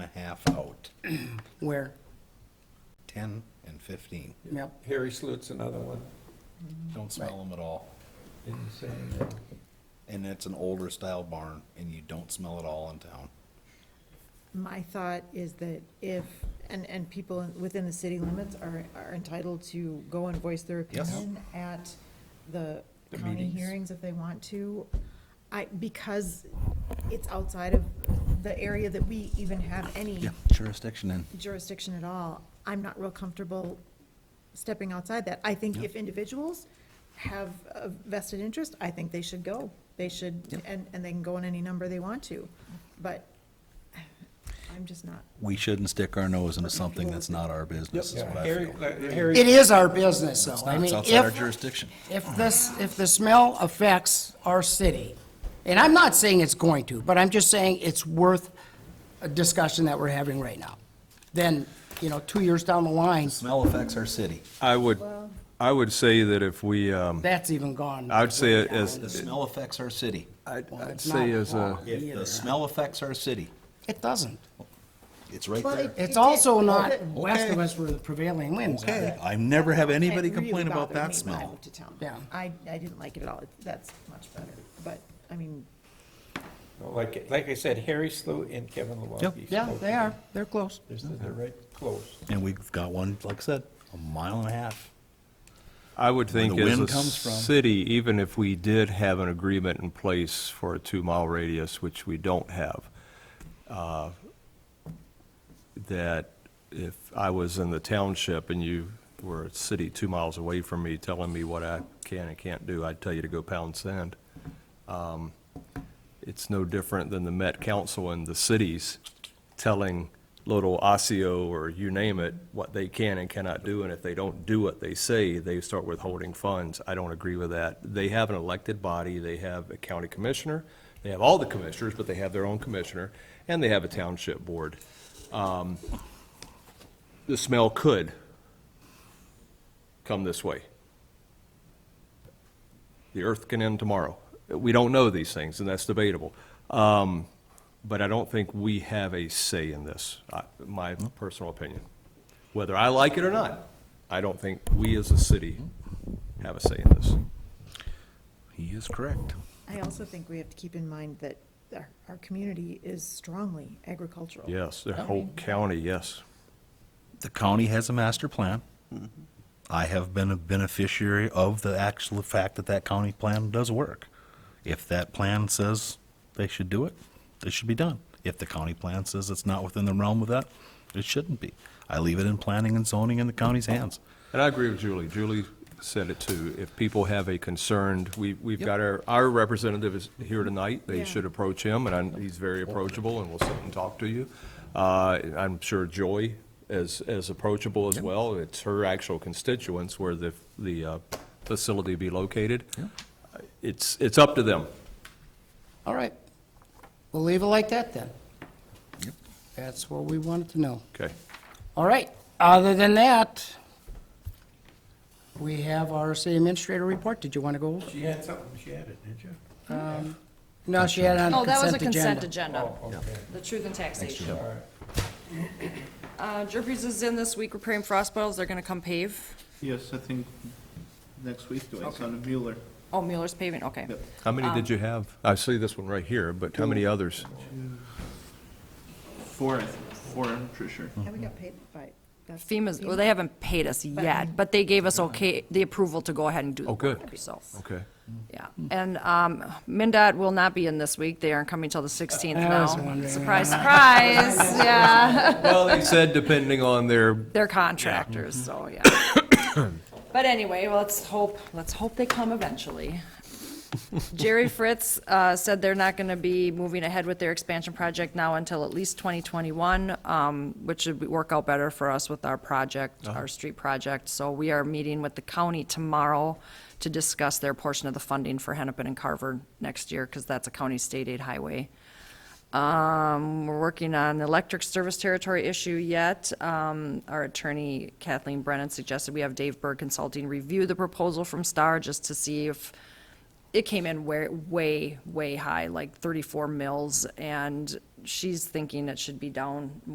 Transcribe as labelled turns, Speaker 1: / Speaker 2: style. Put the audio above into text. Speaker 1: and a half out,
Speaker 2: Where?
Speaker 1: ten and fifteen.
Speaker 2: Yep.
Speaker 3: Harry Slut's another one
Speaker 1: Don't smell them at all.
Speaker 3: in the same, uh,
Speaker 1: And it's an older style barn and you don't smell it all in town.
Speaker 4: My thought is that if, and, and people within the city limits are, are entitled to go and voice their
Speaker 1: Yes.
Speaker 4: opinion at the
Speaker 3: The
Speaker 4: county
Speaker 3: meetings.
Speaker 4: hearings if they want to. I, because it's outside of the area that we even have any
Speaker 1: jurisdiction in.
Speaker 4: jurisdiction at all, I'm not real comfortable stepping outside that. I think if individuals have a vested interest, I think they should go. They should, and, and they can go in any number they want to, but I'm just not.
Speaker 1: We shouldn't stick our nose into something that's not our business is
Speaker 3: yeah,
Speaker 1: what I
Speaker 3: Harry,
Speaker 1: feel.
Speaker 3: uh, Harry,
Speaker 2: It is our business, though.
Speaker 1: It's
Speaker 2: I
Speaker 1: not- it's
Speaker 2: mean,
Speaker 1: outside our
Speaker 2: if,
Speaker 1: jurisdiction.
Speaker 2: if this, if the smell affects our city, and I'm not saying it's going to, but I'm just saying it's worth a discussion that we're having right now. Then, you know, two years down the line,
Speaker 1: Smell affects our city.
Speaker 5: I would, I would say that if we, um,
Speaker 2: that's even gone.
Speaker 5: I'd say it as-
Speaker 1: The smell affects our city.
Speaker 5: I'd
Speaker 2: Well,
Speaker 5: I'd
Speaker 2: it's
Speaker 5: say
Speaker 2: not
Speaker 5: uh, as
Speaker 2: law
Speaker 5: a,
Speaker 1: If the smell affects our city,
Speaker 2: It doesn't.
Speaker 1: it's right there.
Speaker 2: It's also not west of us where the prevailing winds are.
Speaker 1: Okay, I never have anybody
Speaker 4: It really
Speaker 1: complain about
Speaker 4: bothered
Speaker 1: that
Speaker 4: me when I
Speaker 1: smell.
Speaker 4: moved to town.
Speaker 2: Yeah.
Speaker 4: I, I didn't like it at all. It- That's much better, but, I mean,
Speaker 3: like, like I said, Harry Slut and Kevin Lewandowski.
Speaker 2: Yeah, they are. They're close.
Speaker 3: They're, they're right close.
Speaker 1: And we've got one, like I said, a mile and a half.
Speaker 5: I would
Speaker 1: Where
Speaker 5: think
Speaker 1: the
Speaker 5: as
Speaker 1: wind
Speaker 5: a
Speaker 1: comes from.
Speaker 5: city, even if we did have an agreement in place for a two-mile radius, which we don't have, uh, that if I was in the township and you were a city two miles away from me telling me what I can and can't do, I'd tell you to go pound sand. Um, It's no different than the Met Council and the cities telling little Osseo or you name it, what they can and cannot do, and if they don't do what they say, they start withholding funds. I don't agree with that. They have an elected body, they have a county commissioner, they have all the commissioners, but they have their own commissioner, and they have a township board. Um, The smell could come this way. The earth can end tomorrow. We don't know these things, and that's debatable. Um, But I don't think we have a say in this, I- my personal opinion. Whether I like it or not, I don't think we as a city have a say in this.
Speaker 1: He is correct.
Speaker 4: I also think we have to keep in mind that our, our community is strongly agricultural.
Speaker 5: Yes, the whole county, yes.
Speaker 1: the county has a master plan. I have been a beneficiary of the actual fact that that county plan does work. If that plan says they should do it, it should be done. If the county plan says it's not within the realm of that, it shouldn't be. I leave it in planning and zoning in the county's hands.
Speaker 5: And I agree with Julie. Julie said it too. If people have a concern, we, we've got our, our representative is here tonight. They
Speaker 4: Yeah.
Speaker 5: should approach him, and I- he's very approachable, and will sit and talk to you. Uh, I'm sure Joy is, is approachable as well. It's her actual constituents where the, the uh, facility be located. It's, it's up to them.
Speaker 2: All right. We'll leave it like that then. That's what we wanted to know.
Speaker 5: Okay.
Speaker 2: All right, other than that, we have our city administrator report. Did you want to go?
Speaker 3: She had something, she had it, didn't you?
Speaker 2: No, she had it on
Speaker 6: Oh, that was
Speaker 2: the
Speaker 6: a
Speaker 2: consent
Speaker 6: consent
Speaker 2: agenda.
Speaker 6: agenda,
Speaker 3: Oh, okay.
Speaker 6: the truth and taxation. Uh, Jerpies is in this week repairing frost bottles, they're gonna come pave.
Speaker 7: Yes, I think next week, doing son of Mueller.
Speaker 6: Oh, Mueller's paving, okay.
Speaker 7: Yep.
Speaker 5: How many did you have? I see this one right here, but how many others?
Speaker 7: Four, I think, four, I'm pretty sure.
Speaker 4: And we got paid by, that's.
Speaker 6: FEMA's, well, they haven't paid us yet, but they gave us okay, the approval to go ahead and do the
Speaker 5: Oh, good.
Speaker 6: work, so,
Speaker 5: Okay.
Speaker 6: yeah. And, um, MinDOT will not be in this week, they aren't coming till the sixteenth now.
Speaker 2: was wondering.
Speaker 6: Surprise, surprise, yeah.
Speaker 5: Well, they said depending on their
Speaker 6: They're contractors, so, yeah. But anyway, well, let's hope, let's hope they come eventually. Jerry Fritz uh, said they're not going to be moving ahead with their expansion project now until at least 2021, um, which would be- work out better for us with our project, our street project. So we are meeting with the county tomorrow to discuss their portion of the funding for Hennepin and Carver next year, because that's a county state aid highway. Um, we're working on the electric service territory issue yet. Um, our attorney Kathleen Brennan suggested we have Dave Berg Consulting review the proposal from Star just to see if it came in way, way, way high, like thirty-four mils, and she's thinking it should be down